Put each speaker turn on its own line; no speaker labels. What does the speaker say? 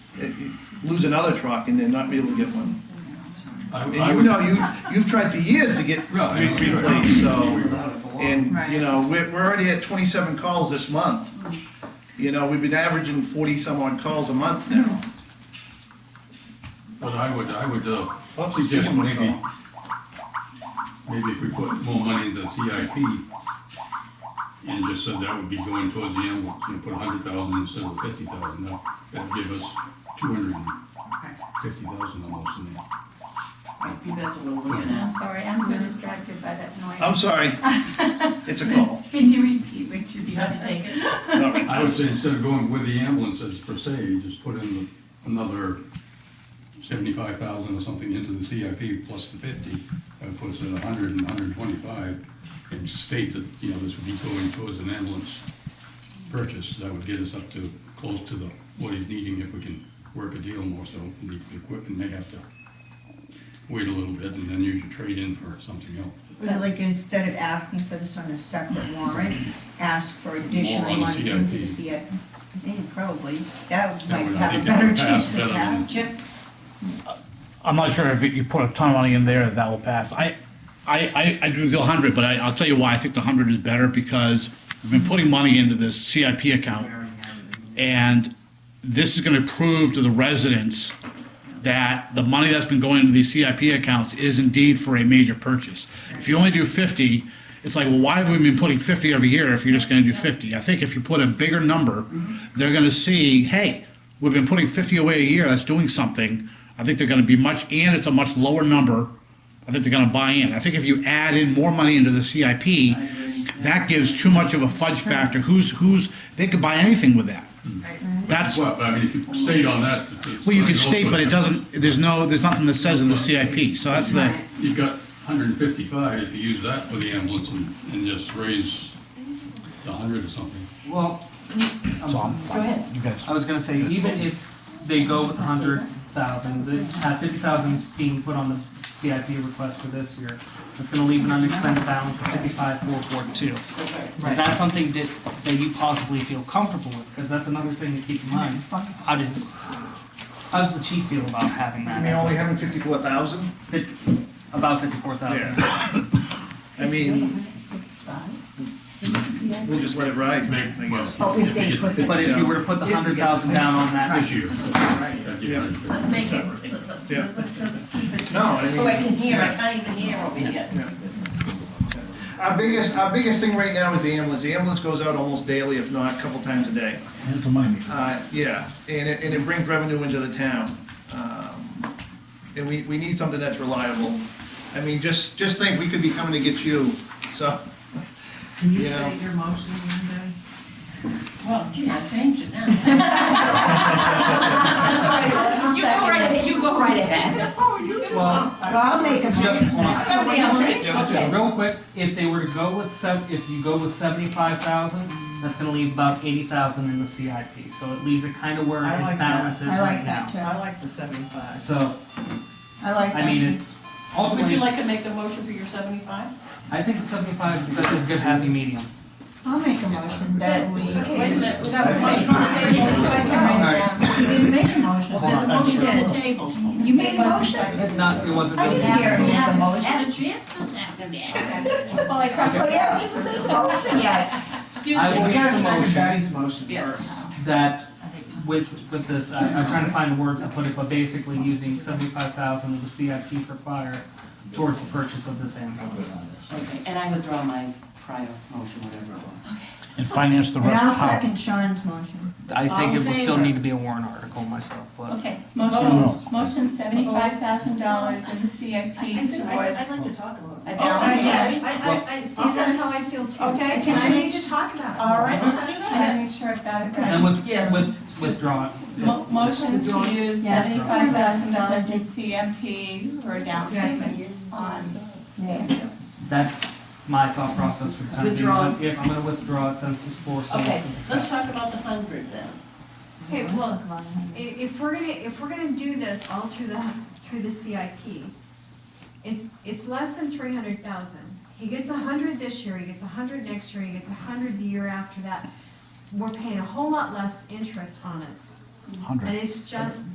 lose another truck and then not be able to get one.
I-
And
I
you
would-
know, you've, you've tried for years to get
Right, I agree.
replaced, so, and,
Right.
you know, we're, we're already at twenty-seven calls this month. You know, we've been averaging forty-some odd calls a month now.
But I would, I would uh,
Well, it's
suggest
been one
maybe,
call.
maybe if we put more money into CIP and just said that would be going towards the ambulance, and put a hundred thousand instead of fifty thousand, that, that'd give us two hundred and fifty thousand almost in there.
I'm Oh, sorry, I'm
Hmm.
so distracted by that
I'm
noise.
sorry,
Oh.
it's a call.
Can you repeat what you
You have to take
said?
it.
All right.
I would say instead of going with the ambulances per se, just put in another seventy-five thousand or something into the CIP plus the fifty. That would put us at a hundred and hundred and twenty-five, and state that, you know, this would be going towards an ambulance purchase. That would get us up to, close to the, what he's needing if we can work a deal more so. The the equipment may have to wait a little bit and then use your trade-in for something else.
But like, instead of asking for this on a separate warrant, ask for additional
More on the
money into the
CIP.
CIP. Maybe probably, that
That
might
would, I
have
think that
a better
would pass
chance of
better than-
passing.
I'm not sure if you put a ton of money in there, that will pass. I, I, I I agree with the 100, but I, I'll tell you why I think the 100 is better, because we've been putting money into this CIP account, and this is gonna prove to the residents that the money that's been going into these CIP accounts is indeed for a major purchase. If you only do 50, it's like, well, why have we been putting 50 every year if you're just gonna do 50? I think if you put a bigger number, they're gonna see, hey, we've been putting 50 away a year, that's doing something. I think they're gonna be much, and it's a much lower number. I think they're gonna buy in. I think if you add in more money into the CIP, that gives too much of a fudge factor. Who's, who's, they could buy anything with that. That's,
Well, I mean, if you stayed on that. it's- it's-
well, you can state, but it doesn't, there's no, there's nothing that says in the CIP, so that's the,
Right.
You've got 155, if you use that for the ambulance and, and just raise the 100 or something.
Well,
Tom.
I'm-
Go
ahead.
You guys.
I was gonna say, even if they go with a hundred thousand, they have fifty thousand being put on the CIP request for this year, it's gonna leave an unexpended balance of fifty-five, four, four, two. Is that something that, that you possibly feel comfortable with? Because that's another thing to keep in mind. How does, how does the chief feel about having
I
that?
mean,
as
only
a-
having fifty-four thousand,
that- About fifty-four thousand.
I mean, we'll just let it ride, I guess.
Oh, if they put the-
But if you were to put the hundred thousand down on that,
This year, that'd give
Yeah.
150.
Let's make it, let's,
Yeah.
let's keep it.
No, I mean-
So I can hear, I can't even hear over here.
Our biggest, our biggest thing right now is the ambulance. The ambulance goes out almost daily, if not a couple times a day.
That's a money meeting.
Uh, yeah, and it, and it brings revenue into the town. Um, And we, we need something that's reliable. I mean, just, just think, we could be coming to get you, so. Can you say your?
Well, gee, I changed it now. You go right ahead, you go right ahead.
well,
Well, I'll make a
Just-
motion.
hold on.
Somebody else changed, okay.
Real quick, if they were to go with sev, if you go with seventy-five thousand, that's gonna leave about eighty thousand in the CIP, so it leaves it kind of where
I
its
like
balance is
I
right
like
now.
that too.
I like the seventy-five.
So,
I like that.
I mean, it's
Would you
ultimately,
like to make the motion for your seventy-five?
I think seventy-five, that is a good happy medium.
I'll make a motion that we.
Wait a minute, without a motion on the table, so I can write it down.
You didn't make a motion.
Hold
There's a
on.
motion on the
You did.
table.
You made a motion.
It not, it wasn't.
I
really-
didn't hear it.
Yeah,
the
I
motion.
had a chance this afternoon.
Well, I can't say yes, you made a motion yet.
Excuse
I
me.
will
We gotta
make the
second
motion.
Betty's motion
Yes.
first.
That with, with this, I, I'm trying to find the words to put it, but basically using seventy-five thousand of the CIP for fire towards the purchase of this ambulance.
Okay, and I withdraw my prior motion, whatever it was.
And finance the
And
rest.
I'll
how?
second Sean's motion.
I think
All in
it will still
favor?
need to be a warrant article myself, but
Okay,
No.
motion, motion seventy-five thousand dollars in the CIP towards
like to talk a little.
a
Oh,
down payment.
I, I, I,
See, that's how I feel too.
Okay,
I
can I-
need to talk about it.
All right,
Let's do
I gotta
that.
make sure I've got it right.
and with,
Yes.
with, withdraw it.
Mo- Motion to use
Yeah.
seventy-five thousand dollars in CIP for a down payment on
Yeah.
That's my thought process for the time being.
Withdraw.
Yep, I'm gonna withdraw it since the floor still
Okay,
has to
let's
discuss.
talk about the hundred then.
Okay, well, i- if we're gonna, if we're gonna do this all through the, through the CIP, it's, it's less than three hundred thousand. He gets a hundred this year, he gets a hundred next year, he gets a hundred the year after that. We're paying a whole lot less interest on it,
100.
and it's just